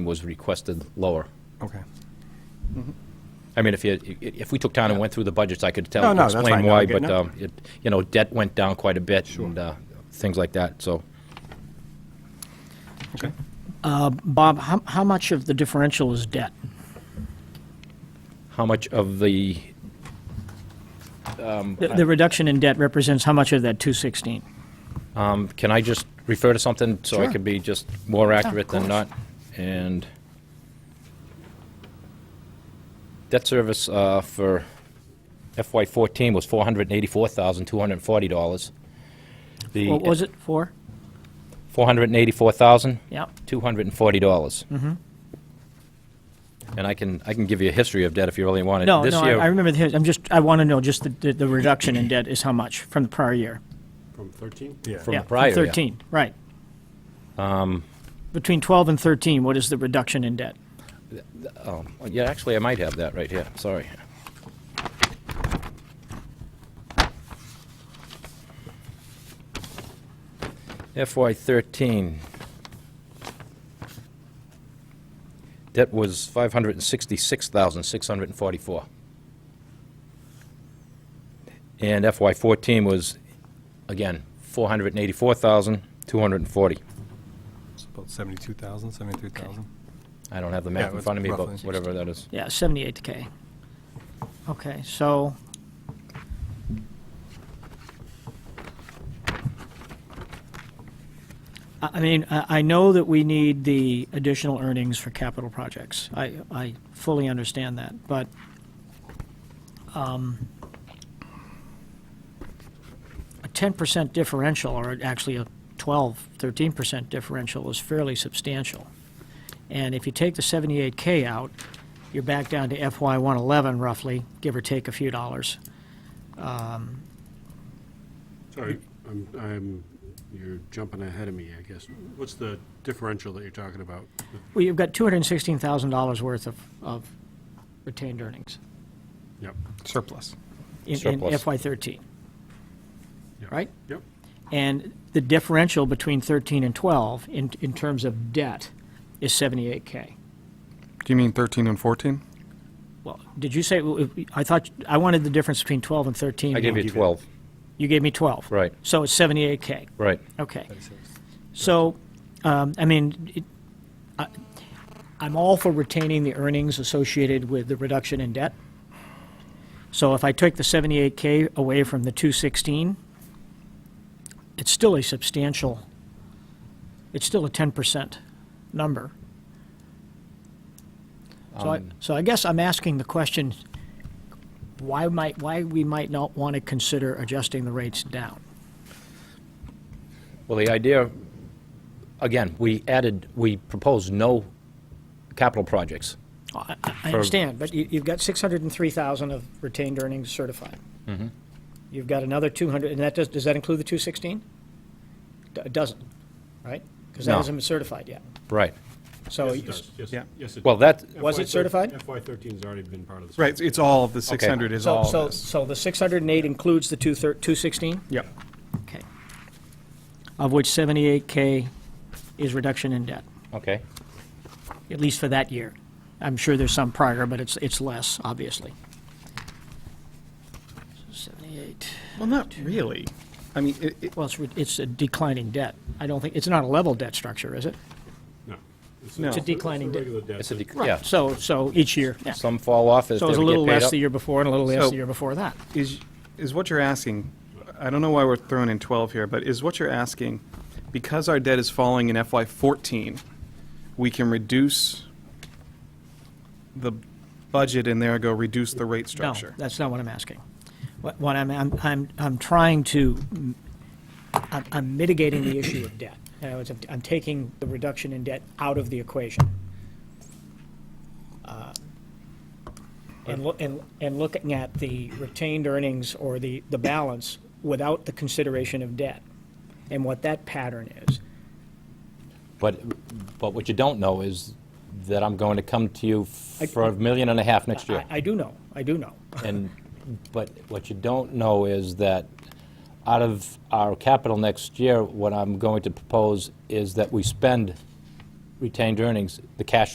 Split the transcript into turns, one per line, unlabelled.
was requested lower.
Okay.
I mean, if you, i- if we took time and went through the budgets, I could
No,
tell,
no, that's
explain
fine. No, I
why,
get-
but,
no.
um, it, you know, debt went down quite a bit and, uh, things like that, so.
Okay.
Bob, how, how much of the differential is debt?
How much of the,
The, the reduction in debt represents how much of that 216?
um, can I just refer to something so I
Sure.
can be just more accurate than not? And debt service, uh, for FY fourteen was four hundred and eighty-four thousand, two hundred and forty dollars.
What was it for?
Four hundred and eighty-four thousand,
Yeah,
$240. Mm-hmm. And I can, I can give you a history of debt if you really want it.
no,
uh, This
no, I-
year-
I remember, the- I'm just, I want to know just the- the, the reduction in debt is how much from the prior year?
From 13?
Yeah.
From
Yeah,
the prior Um, year.
13, right. Between 12 and 13, what is the reduction in debt?
Yeah, actually, I might have that right here, sorry. FY thirteen. Debt was five hundred and sixty-six thousand, six hundred and forty-four. And FY fourteen was, again, four hundred and eighty-four thousand, two hundred and forty.
It's about 72,000, 73,000.
I don't have the
Yeah, it
math in
was
front of me,
roughly.
but whatever that is.
Yeah, 78K. Okay, so, I I mean, I I know that we need the additional earnings for capital projects. I, I fully understand that, but um, a 10% differential, or actually a 12, 13% differential is fairly substantial. And if you take the 78K out, you're back down to FY 111 roughly, give or take a few dollars.
Sorry, I'm, I'm, you're jumping ahead of me, I guess. What's the differential that you're talking about?
Well, you've got $216,000 worth of, of retained earnings
Yep,
Surplus.
in- in
Surplus.
FY 13,
Yeah.
right?
yep.
And the differential between 13 and 12 in, in terms of debt is 78K.
Do you mean 13 and 14?
Well, did you say, I thought, I wanted the difference between 12 and 13.
I gave you
give it-
12,
You gave me 12.
right,
So it's 78K.
right.
Okay. So, um, I mean, it- I- I'm all for retaining the earnings associated with the reduction in debt. So if I took the 78K away from the 216, it's still a substantial, it's still a 10% number. So I, so I guess I'm asking the question, why might, why we might not want to consider adjusting the rates down?
Well, the idea, again, we added, we proposed no capital projects.
I- I I understand, but you- you've got 603,000 of retained earnings certified. You've got another 200, and that does, does that include the 216? D- It doesn't, right? Because that
No.
hasn't been certified yet.
Right.
So,
Yes, it
Oh, you-
does. Yes,
Yeah.
yes, it
Well, that,
Was it certified?
FY 13's already been part of this.
Right, it's- it's all, the 600 is
so,
all
so,
this.
so the 608 includes the 213 216?
Yep.
Okay. Of which 78K is reduction in debt,
okay,
at least for that year. I'm sure there's some prior, but it's, it's less, obviously. 78.
Well, not really. I mean, it, it-
Well, it's, re- it's a declining debt. I don't think, it's not a level debt structure, is it?
No. It's
No. It's a
declining
It's a regular debt.
it's a,
that-
dec- yeah,
So, so each year, yeah. So
some fall off as
it
they
was a little
would get
less the
paid up.
year before and a little less
So-
the year before that.
Is, is what you're asking, I don't know why we're throwing in 12 here, but is what you're asking, because our debt is falling in FY '14, we can reduce the budget and there go reduce the rate
No,
structure?
that's not what I'm asking. What, what I'm, I'm, I'm, I'm trying to, I'm, I'm mitigating the issue of debt. In other words, I'm, I'm taking the reduction in debt out of the equation. Uh, And look, and, and looking at the retained earnings or the, the balance without the consideration of debt and what that pattern is.
But, but what you don't know is that I'm going to come to you
I-
for a million and a half next year.
I, I do know, I do know.
And, but what you don't know is that out of our capital next year, what I'm going to propose is that we spend retained earnings, the cash